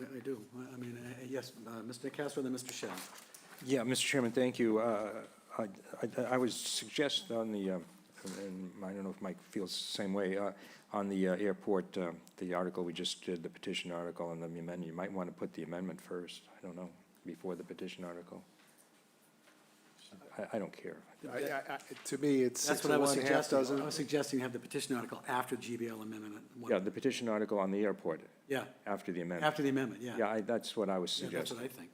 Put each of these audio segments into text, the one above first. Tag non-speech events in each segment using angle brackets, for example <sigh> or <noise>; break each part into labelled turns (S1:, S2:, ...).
S1: I I do. I- I mean, uh, yes, uh, Mr. Castro, then Mr. Shea.
S2: Yeah, Mr. Chairman, thank you. Uh, I I- I was suggest on the, um, and I don't know if Mike feels the same way, uh, on the uh, airport, um, the article we just did, the petition article and the amendment, you might want to put the amendment first, I don't know, before the petition article. I- I don't care.
S3: I, I, I, to me, it's
S1: That's
S3: six
S1: what I
S3: of
S1: was
S3: one, half
S1: suggesting. I
S3: dozen.
S1: was suggesting you have the petition article after GBL amendment. at one-
S2: Yeah, the petition article on the airport,
S1: Yeah,
S2: after the amendment.
S1: after the amendment, yeah.
S2: Yeah, I- that's what I was
S1: Yeah, That's what
S2: suggesting.
S1: I think,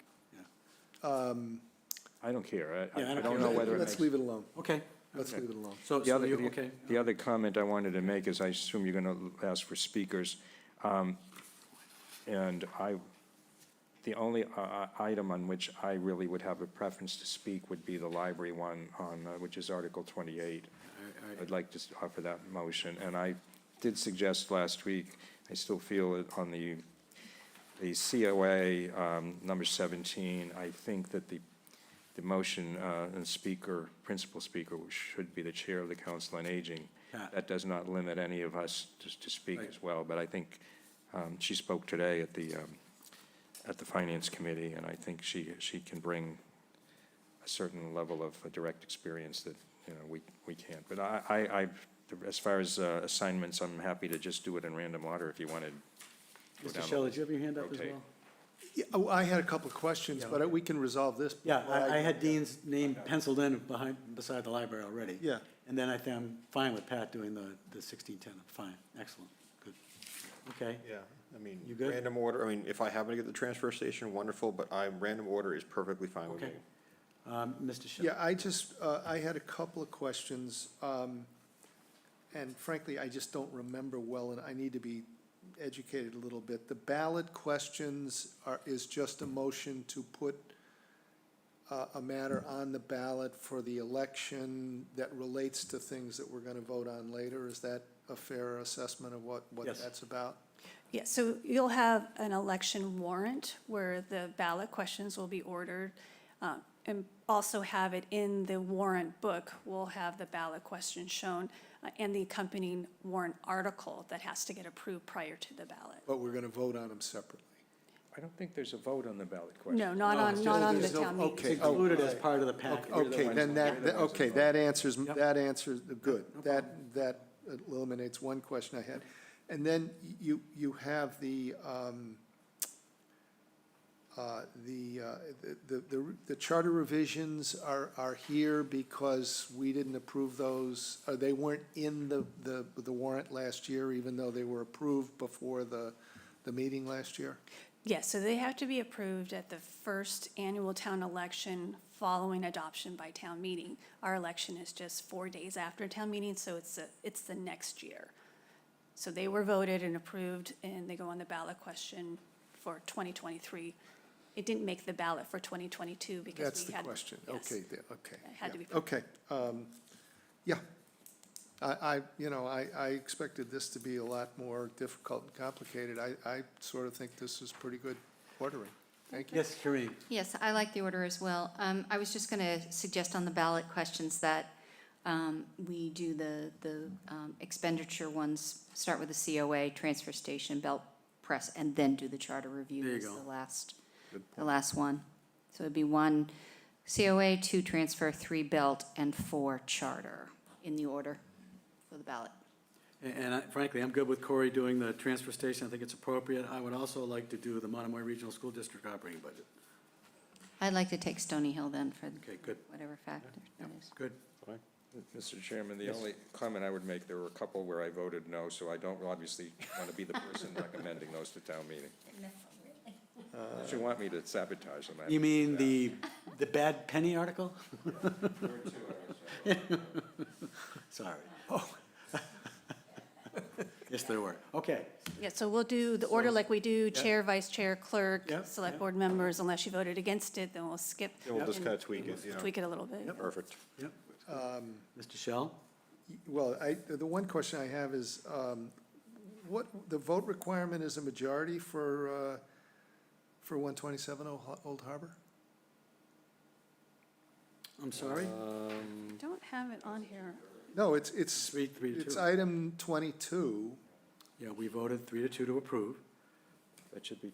S1: yeah.
S2: I don't care. I-
S1: Yeah, I
S2: I
S1: don't
S2: I
S1: care.
S2: don't know whether it
S3: Let's
S2: makes
S3: leave it alone.
S1: Okay,
S3: Let's leave it alone.
S1: so,
S2: The
S1: so
S2: other,
S1: you,
S2: the-
S1: okay.
S2: the other comment I wanted to make is, I assume you're going to ask for speakers. Um, And I, the only uh, item on which I really would have a preference to speak would be the library one on, uh, which is Article 28. I'd like to s- offer that motion, and I did suggest last week, I still feel it on the, the COA, um, number 17, I think that the, the motion, uh, and speaker, principal speaker should be the chair of the Council on Aging.
S1: Yeah.
S2: That does not limit any of us to, to speak as well, but I think, um, she spoke today at the, um, at the Finance Committee, and I think she, she can bring a certain level of uh, direct experience that, you know, we, we can't. But I, I, I, as far as uh, assignments, I'm happy to just do it in random order if you wanted. to go
S1: Mr.
S2: down the
S1: Shea, did you have your hand up as
S2: rotate.
S1: well?
S3: Yeah, oh, I had a couple of questions, but we can resolve this.
S1: Yeah, I, I had Dean's name penciled in behind, beside the library already.
S3: Yeah.
S1: And then I think I'm fine with Pat doing the, the sixteen ten, fine, excellent, good. Okay,
S4: Yeah, I mean,
S1: You good?
S4: random order, I mean, if I happen to get the transfer station, wonderful, but I, random order is perfectly fine with me.
S1: Okay. um, Mr. Shea.
S3: Yeah, I just, uh, I had a couple of questions, um, and frankly, I just don't remember well, and I need to be educated a little bit. The ballot questions are, is just a motion to put uh, a matter on the ballot for the election that relates to things that we're gonna vote on later. Is that a fair assessment of what, what
S1: Yes.
S3: that's about?
S5: Yeah, so you'll have an election warrant where the ballot questions will be ordered. uh, And also have it in the warrant book, we'll have the ballot question shown uh, and the accompanying warrant article that has to get approved prior to the ballot.
S3: But we're gonna vote on them separately.
S2: I don't think there's a vote on the ballot question.
S5: No, not
S1: No, it's
S5: on, not
S1: just-
S5: on the
S3: there's no-
S5: town meeting.
S3: okay. Oh.
S1: It's included as part of the package.
S3: Okay, then that, that- okay, that answers,
S1: Yep.
S3: that answers, good. That, that eliminates one question I had. And then you, you have the, um, uh, the, uh, the, the, the charter revisions are, are here because we didn't approve those, or they weren't in the, the, the warrant last year, even though they were approved before the, the meeting last year?
S5: Yes, so they have to be approved at the first annual town election following adoption by town meeting. Our election is just four days after town meeting, so it's, the- it's the next year. So they were voted and approved, and they go on the ballot question for 2023. It didn't make the ballot for 2022 because we had.
S3: That's the question.
S5: yes.
S3: Okay, the- okay.
S5: It had
S3: yeah,
S5: to be put-
S3: Okay, um, yeah. I, I, you know, I, I expected this to be a lot more difficult and complicated. I, I sort of think this is pretty good ordering. Thank you.
S1: Yes, Kareem.
S6: Yes, I like the order as well. Um, I was just going to suggest on the ballot questions that um, we do the, the um, expenditure ones, start with the COA, transfer station, belt press, and then do the charter review
S1: There you
S6: is
S1: go.
S6: the last, the last one. So it'd be one COA, two transfer, three belt, and four charter in the order for the ballot.
S1: A- And I- frankly, I'm good with Corey doing the transfer station. I think it's appropriate. I would also like to do the Monomoy Regional School District operating budget.
S6: I'd like to take Stony Hill then for
S1: Okay, good.
S6: whatever factor
S1: Yeah,
S6: that is.
S1: Good.
S2: Mr. Chairman, the only comment I would make, there were a couple where I voted no, so I don't obviously want to be the person recommending those to town meeting. If you want me to sabotage them, I
S1: You mean the, the bad penny article? <laughs> Sorry. <laughs> Yes, there were. Okay.
S5: Yeah, so we'll do the order like we do, chair, vice chair, clerk,
S1: Yeah, yeah.
S5: select board members, unless you voted against it, then we'll skip.
S4: Then we'll just
S5: and
S4: kinda tweak it, you know.
S5: Tweak it a little bit.
S4: Perfect.
S1: Yep. Mr. Shell?
S3: Well, I, the one question I have is, um, what, the vote requirement is a majority for, uh, for one twenty-seven Old Harbor?
S1: I'm sorry?
S5: Don't have it on here.
S3: No, it's, it's,
S1: Three, three to
S3: it's
S1: two.
S3: item twenty-two.
S1: Yeah, we voted three to two to approve.
S2: That should be